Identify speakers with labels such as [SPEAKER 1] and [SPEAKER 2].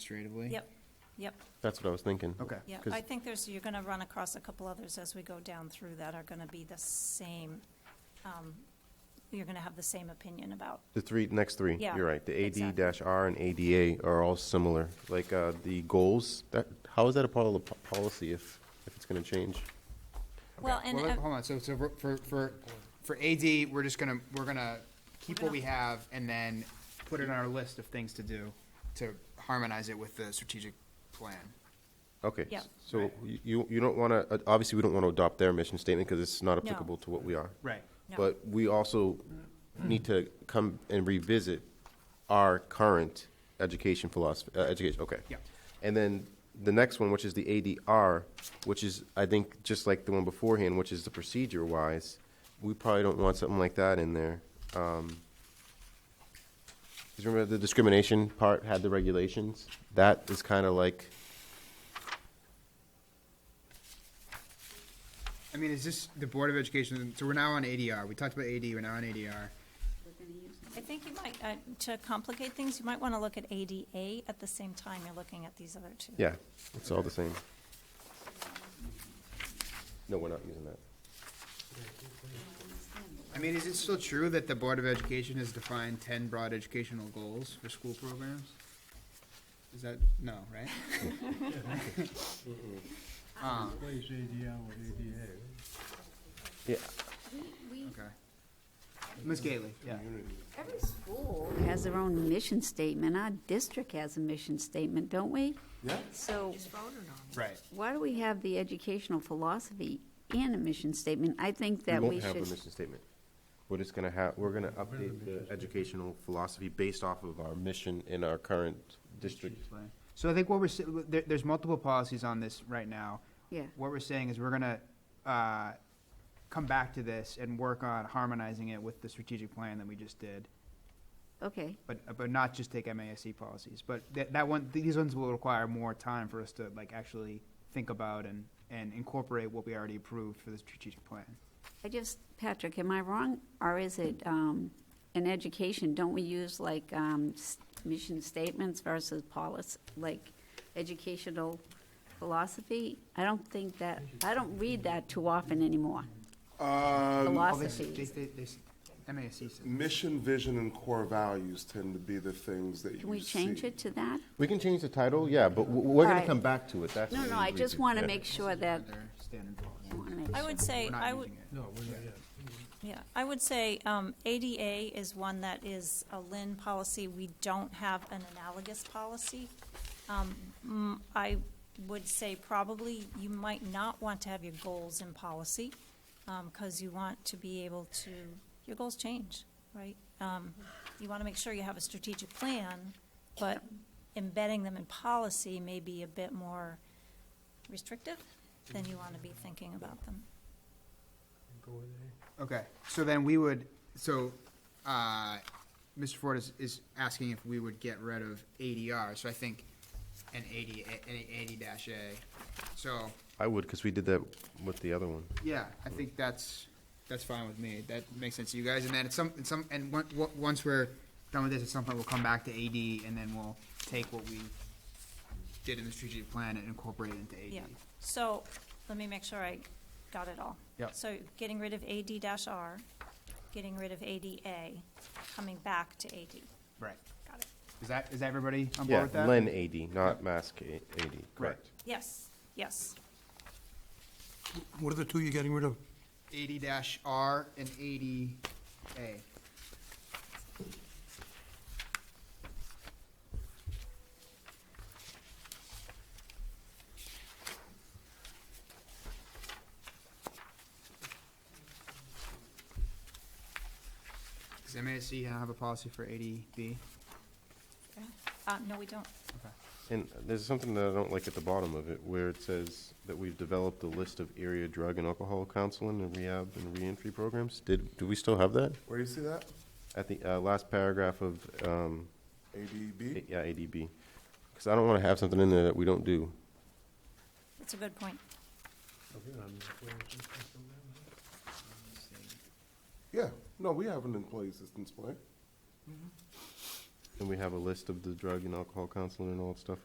[SPEAKER 1] administratively?
[SPEAKER 2] Yep, yep,
[SPEAKER 3] That's what I was thinking.
[SPEAKER 1] Okay.
[SPEAKER 2] yep.
[SPEAKER 3] 'Cause-
[SPEAKER 2] I think there's, you're gonna run across a couple others as we go down through that are gonna be the same, um, you're gonna have the same opinion about.
[SPEAKER 3] The three, next three,
[SPEAKER 2] Yeah,
[SPEAKER 3] you're right. The AD
[SPEAKER 2] exactly.
[SPEAKER 3] R and ADA are all similar. Like, uh, the goals, that, how is that a part of the po- policy if, if it's gonna change?
[SPEAKER 2] Well, and,
[SPEAKER 1] Well,
[SPEAKER 2] uh,
[SPEAKER 1] hold on, so, so for- for, for, for AD, we're just gonna, we're gonna keep what we have and then put it on our list of things to do to harmonize it with the strategic plan.
[SPEAKER 3] Okay.
[SPEAKER 2] Yeah.
[SPEAKER 3] So you- you, you don't wanna, uh, obviously, we don't wanna adopt their mission statement because it's not applicable to what we are.
[SPEAKER 1] Right.
[SPEAKER 2] No.
[SPEAKER 3] But we also need to come and revisit our current education philosophy, uh, education, okay.
[SPEAKER 1] Yeah.
[SPEAKER 3] And then the next one, which is the ADR, which is, I think, just like the one beforehand, which is the procedure wise, we probably don't want something like that in there. Um, Cause remember the discrimination part had the regulations? That is kind of like,
[SPEAKER 1] I mean, is this the Board of Education, so we're now on ADR, we talked about AD, we're now on ADR.
[SPEAKER 2] I think you might, uh, to complicate things, you might wanna look at ADA at the same time you're looking at these other two.
[SPEAKER 3] yeah, it's all the same. No, we're not using that.
[SPEAKER 1] I mean, is it still true that the Board of Education has defined ten broad educational goals for school programs? Is that, no, right? Um,
[SPEAKER 4] Replace ADR with ADA.
[SPEAKER 3] Yeah,
[SPEAKER 5] We,
[SPEAKER 1] okay. Ms. Gately, yeah.
[SPEAKER 5] every school has their own mission statement. Our district has a mission statement, don't we?
[SPEAKER 4] Yeah.
[SPEAKER 5] So
[SPEAKER 1] Right.
[SPEAKER 5] why do we have the educational philosophy and a mission statement? I think that we
[SPEAKER 3] won't have a
[SPEAKER 5] should.
[SPEAKER 3] mission statement. We're just gonna have, we're gonna update the educational philosophy based off of our mission in our current district.
[SPEAKER 1] So I think what we're, sa- there, there's multiple policies on this right now.
[SPEAKER 5] Yeah.
[SPEAKER 1] What we're saying is we're gonna, uh, come back to this and work on harmonizing it with the strategic plan that we just did.
[SPEAKER 5] Okay,
[SPEAKER 1] But, but not just take MASC policies, but that, that one, these ones will require more time for us to like actually think about and, and incorporate what we already approved for the strategic plan.
[SPEAKER 5] I just, Patrick, am I wrong? Or is it, um, in education, don't we use like, um, s- mission statements versus policy, like educational philosophy? I don't think that, I don't read that too often anymore.
[SPEAKER 4] Uh,
[SPEAKER 1] Oh, they s-
[SPEAKER 5] Philosophies.
[SPEAKER 1] they- they- they s- MASC says.
[SPEAKER 4] Mission, vision, and core values tend to be the things that you see.
[SPEAKER 5] Can we change it to that?
[SPEAKER 3] We can change the title, yeah, but w- we're gonna
[SPEAKER 5] Alright.
[SPEAKER 3] come back to it, that's.
[SPEAKER 5] No,
[SPEAKER 3] what
[SPEAKER 5] no,
[SPEAKER 3] we
[SPEAKER 5] I
[SPEAKER 3] agreed
[SPEAKER 5] just want to
[SPEAKER 3] Yeah.
[SPEAKER 5] make sure that,
[SPEAKER 1] Their standard policy.
[SPEAKER 5] I wanna make
[SPEAKER 2] I
[SPEAKER 5] sure.
[SPEAKER 2] would say,
[SPEAKER 1] We're not
[SPEAKER 2] I would,
[SPEAKER 1] using it.
[SPEAKER 4] No, we're not yet.
[SPEAKER 2] Yeah, I would say um, ADA is one that is a Lynn policy. We don't have an analogous policy. Um, mm, I would say probably you might not want to have your goals in policy because you want to be able to, your goals change, right? Um, You want to make sure you have a strategic plan, but embedding them in policy may be a bit more restrictive than you want to be thinking about them.
[SPEAKER 1] Okay, so then we would, so, uh, Mr. Ford is, is asking if we would get rid of ADR, so I think an eighty, an eighty dash A. So,
[SPEAKER 3] I would, cause we did that with the other one.
[SPEAKER 1] yeah, I think that's, that's fine with me, that makes sense to you guys, and then at some, at some, and on- on- once we're done with this, at some point, we'll come back to AD, and then we'll take what we did in the strategic plan and incorporate it into
[SPEAKER 2] Yeah,
[SPEAKER 1] AD.
[SPEAKER 2] so, let me make sure I got it all.
[SPEAKER 1] Yep.
[SPEAKER 2] So getting rid of AD R, getting rid of ADA, coming back to AD.
[SPEAKER 1] Right,
[SPEAKER 2] Got it.
[SPEAKER 1] is that, is everybody on board
[SPEAKER 3] Yeah,
[SPEAKER 1] with that?
[SPEAKER 3] Len AD, not Mask A- AD, correct.
[SPEAKER 2] Yes, yes.
[SPEAKER 6] What are the two you're getting rid of?
[SPEAKER 1] eighty dash R and eighty A. Does MASC have a policy for eighty B?
[SPEAKER 2] Okay. Uh, no, we don't.
[SPEAKER 1] Okay.
[SPEAKER 3] And there's something that I don't like at the bottom of it, where it says that we've developed a list of area drug and alcohol counseling and rehab and reentry programs. Did, do we still have that?
[SPEAKER 4] Where do you see that?
[SPEAKER 3] At the, uh, last paragraph of, um,
[SPEAKER 4] ADB?
[SPEAKER 3] Yeah, ADB. Because I don't want to have something in there that we don't do.
[SPEAKER 2] That's a good point.
[SPEAKER 4] Yeah, no, we have an employee assistance plan.
[SPEAKER 3] And we have a list of the drug and alcohol counseling and all that stuff